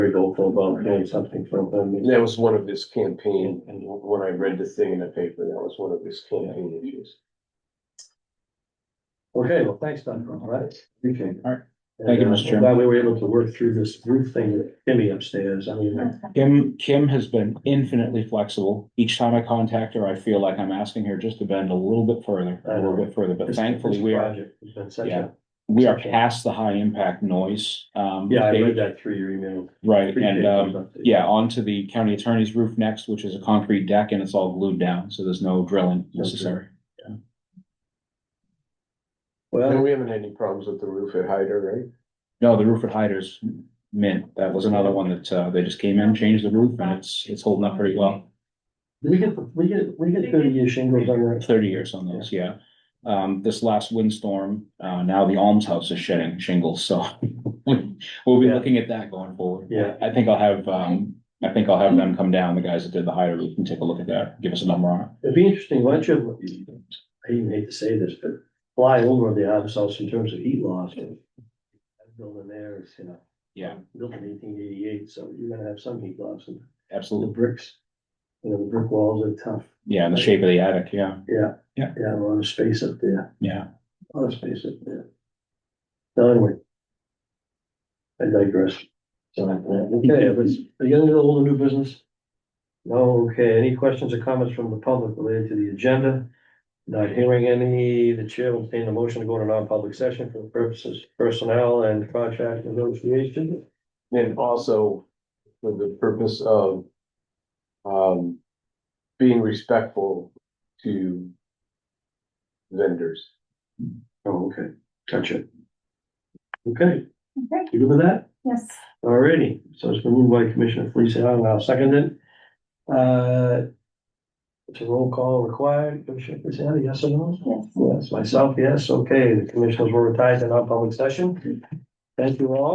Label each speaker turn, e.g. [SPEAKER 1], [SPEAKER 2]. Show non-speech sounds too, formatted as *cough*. [SPEAKER 1] very hopeful about doing something from
[SPEAKER 2] And
[SPEAKER 1] them.
[SPEAKER 2] that was one of his campaign, and when I read the thing in the paper, that was one of his campaign issues.
[SPEAKER 1] Okay, well, thanks, Don, all right? Appreciate it.
[SPEAKER 3] All right. Thank you,
[SPEAKER 1] And, uh,
[SPEAKER 3] Mr.
[SPEAKER 1] I'm
[SPEAKER 3] Chairman.
[SPEAKER 1] Glad we were able to work through this roof thing with Kimmy upstairs, I mean, uh,
[SPEAKER 3] Kim, Kim has been infinitely flexible. Each time I contact her, I feel like I'm asking her just to bend a little bit further, a little bit further, but
[SPEAKER 1] this-
[SPEAKER 3] thankfully
[SPEAKER 1] this
[SPEAKER 3] we are,
[SPEAKER 1] project has been such
[SPEAKER 3] Yeah.
[SPEAKER 1] a,
[SPEAKER 3] we are past the high impact noise. Um,
[SPEAKER 1] yeah, I
[SPEAKER 3] they-
[SPEAKER 1] read that through your email.
[SPEAKER 3] Right,
[SPEAKER 1] Appreciate
[SPEAKER 3] and, um,
[SPEAKER 1] those updates.
[SPEAKER 3] yeah, onto the county attorney's roof next, which is a concrete deck and it's all glued down, so there's no drilling necessary.
[SPEAKER 2] And
[SPEAKER 1] Well,
[SPEAKER 2] we haven't had any problems with the roof at Hyder,
[SPEAKER 3] No, the roof at Hyder's mint, that was another one that, uh, they just came in, changed the roof and it's, it's holding up pretty well.
[SPEAKER 1] we get, we get, we get thirty year shingles on our,
[SPEAKER 3] Thirty years on those, yeah. Um, this last windstorm, uh, now the almshouse is shedding shingles, so *laughs* we'll be
[SPEAKER 1] Yeah.
[SPEAKER 3] looking at that going forward.
[SPEAKER 1] yeah,
[SPEAKER 3] I think I'll have, um, I think I'll have them come down, the guys that did the Hyder roof, and take a look at that, give us a number on it.
[SPEAKER 1] it'd be interesting, why don't you, I even hate to say this, but fly over the ourselves in terms of heat loss. That Building there is, you know.
[SPEAKER 3] Yeah.
[SPEAKER 1] Built in eighteen eighty-eight, so you're gonna have some heat loss and the
[SPEAKER 3] Absolutely.
[SPEAKER 1] bricks. You know, the brick walls are tough,
[SPEAKER 3] Yeah, and the shape of the attic, yeah,
[SPEAKER 1] yeah.
[SPEAKER 3] Yeah.
[SPEAKER 1] Yeah, a lot of space up there,
[SPEAKER 3] yeah.
[SPEAKER 1] a lot of space up there. So anyway. I digress. So, uh, yeah, okay, but are you gonna do old and new business? No, okay, any questions or comments from the public related to the agenda? Not hearing any, the chair will entertain a motion to go into non-public session for the purposes of personnel and contract negotiation.
[SPEAKER 2] right? And also for the purpose of um, being respectful to vendors.
[SPEAKER 1] Oh, okay, gotcha. Okay,
[SPEAKER 4] Okay,
[SPEAKER 1] you good with that?
[SPEAKER 4] yes.
[SPEAKER 1] Alrighty, so it's been moved by Commissioner Felice Allen, I'll second it. Uh. It's a roll call required, Commissioner Felice Allen, yes or no? Yes. Myself, yes, okay, the commissioners were retired in our public session. Thank you all.